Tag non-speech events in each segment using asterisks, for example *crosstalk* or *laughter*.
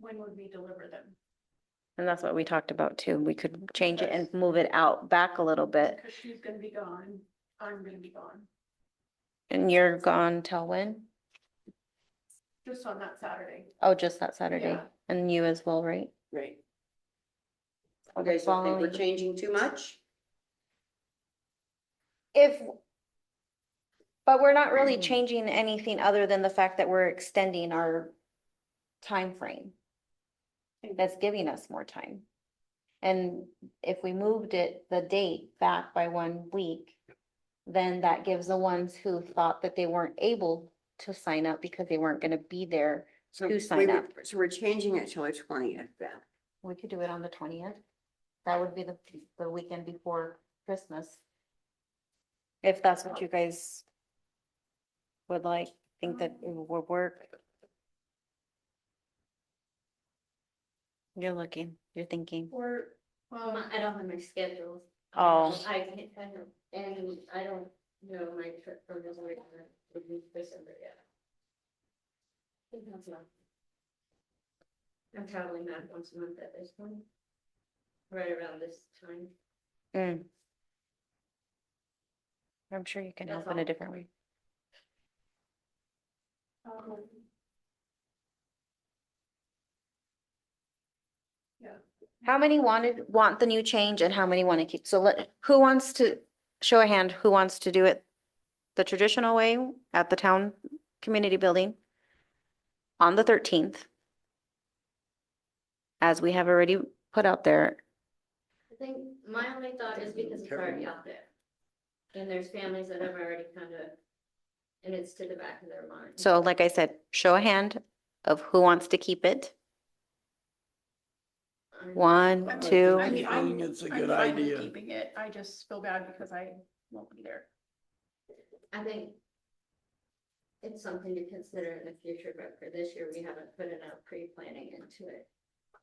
when would we deliver them? And that's what we talked about too. We could change it and move it out back a little Uh, bit. Because she's gonna be gone, I'm gonna be gone, And you're gone till when? just on that Saturday. Oh, just that Saturday. Yeah. And you as well, right? Right. Okay, so I think we're Following- changing too much? If, but we're not really changing anything other than the fact that we're extending our time frame. That's giving us more time. And if we moved it, the date back by one week, then that gives the ones who thought that they weren't able to sign up because they weren't gonna be there. So To we sign were- up. So we're changing it till the twentieth then. We could do it on the twentieth. That would be the, the weekend before Christmas. If that's what you guys would like, think that it would work. You're looking, you're thinking. Or, Um, well, I don't have my schedule. Oh. I can't, I don't, and I don't know my trip from this week to December yet. I think that's not- I'm traveling that once a month at this point. Right around this time. Mm. I'm sure you can That's help in a all. different way. um, How many wanted, want the new change and how many want to keep? So let, who wants to, show a hand, who wants to do it the traditional way at the town community building on the thirteenth? As we have already put out there, I think my only thought is because it's already out there. And there's families that have already kind of, and it's to the back of their mind. so like I said, show a hand of who wants to keep it. I'm- One, I'm- two. I mean, I'm- think it's a I'm good fine with idea. Keeping it, I just feel bad because I won't be there. I think it's something to consider in the future, but for this year, we haven't put enough pre-planning into it,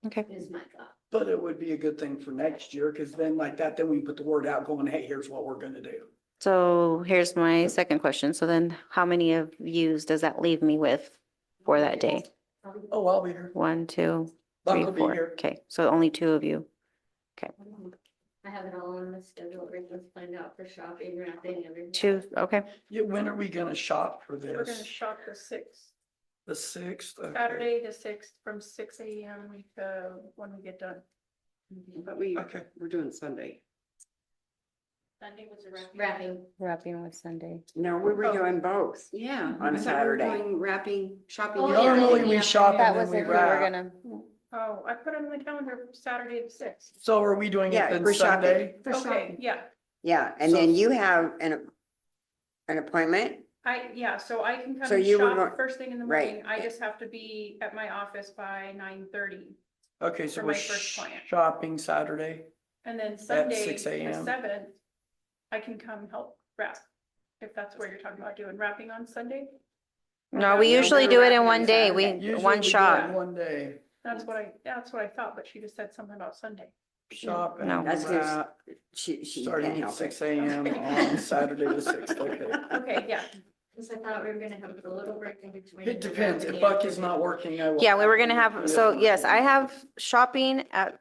Okay, is my thought. But it would be a good thing for next year, because then like that, then we can put the word out going, hey, here's what we're gonna do. so here's my second question. So then how many of yous does that leave me with for that day? Oh, I'll be here. One, two, Buck three, will be four. here. Okay, so only two of you. I have it all on the schedule, we're gonna find out for shopping, wrapping, everything. Two, okay. Yeah, when are we gonna shop for We're gonna this? shop the sixth, The sixth? Okay. Saturday the sixth, from six AM to when we get done. But we, Okay. we're doing Sunday. Sunday was a Wrapping, Wrapping with Sunday. No, we were Oh. doing both. Yeah. I On thought we were Saturday. doing Wrapping, shopping. Oh, and yeah. Normally everything. we shop That and was then if we we were wrap. gonna, Oh, I put on my calendar for Saturday the sixth. So are we doing it Yeah, then for Sunday? shopping. For Okay, shopping. yeah, Yeah, and then you have an, an appointment. I, yeah, so I can come So and you were shop go- first thing in the right. morning. I just have to be at my office by nine thirty. Okay, so For we're my first client. shopping Saturday. And then Sunday, the 6 a.m.. seventh, I can come help wrap, if that's what you're talking about doing, wrapping on Sunday? no, we No, usually we're do it in wrapping one on day. Saturday. We, Usually one we do it shot. One day, That's what I, that's what I thought, but she just said something about Sunday. shop No. and That's good. wrap, She, she can't starting at help it. six AM on Saturday the sixth, okay. Okay, yeah, because I thought we were gonna have a little break in between. It depends. If Buck is not working, I will. Yeah, we were gonna have, so yes, I have shopping at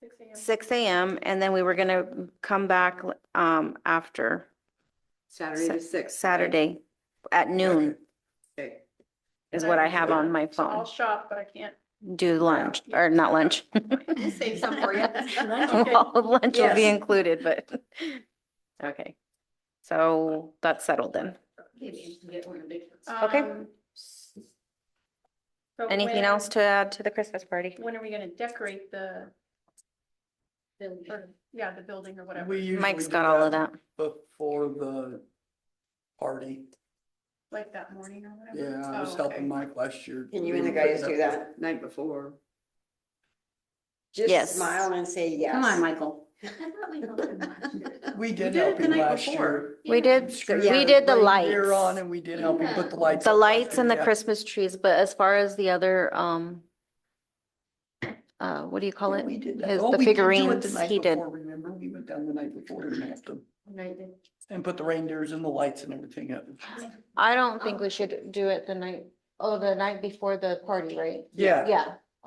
six AM. six AM and then we were gonna come back um after Saturday the sixth. Saturday at noon Okay. is what I have on my So I'll phone. shop, but I can't. Do lunch, or not lunch. *laughs* Save some *laughs* for you. Well, Lunch will be Yes. included, but, *laughs* okay. So that's settled then. Maybe you can get one of the big Uh, *laughs* ones. Okay. um, s- so Anything when- else to add to the Christmas party? When are we gonna decorate the, Then- or, yeah, the building or whatever? We usually Mike's do got all of that. Before the party. Like that morning or whatever? Yeah, I was Oh, okay. helping Mike last year. Can you and the guys do that night before? Yes. Just smile and say yes. Come on, Michael. I thought we helped him last year. We We did did help it the him night last year. before. We did, Screw we it. did the Bring beer On lights, and we did help him put the Yeah. lights. the up. lights and the Yeah. Christmas trees, but as far as the other, um, uh, what do you call Yeah, it? we did that. His, Oh, the we did do it the figurines, night he did. before, Remember, we went down the night before and helped him And I did- and put the reindeers and the lights and everything up. I don't think we should do it the night, oh, the night before the party, right? Yeah, Yeah,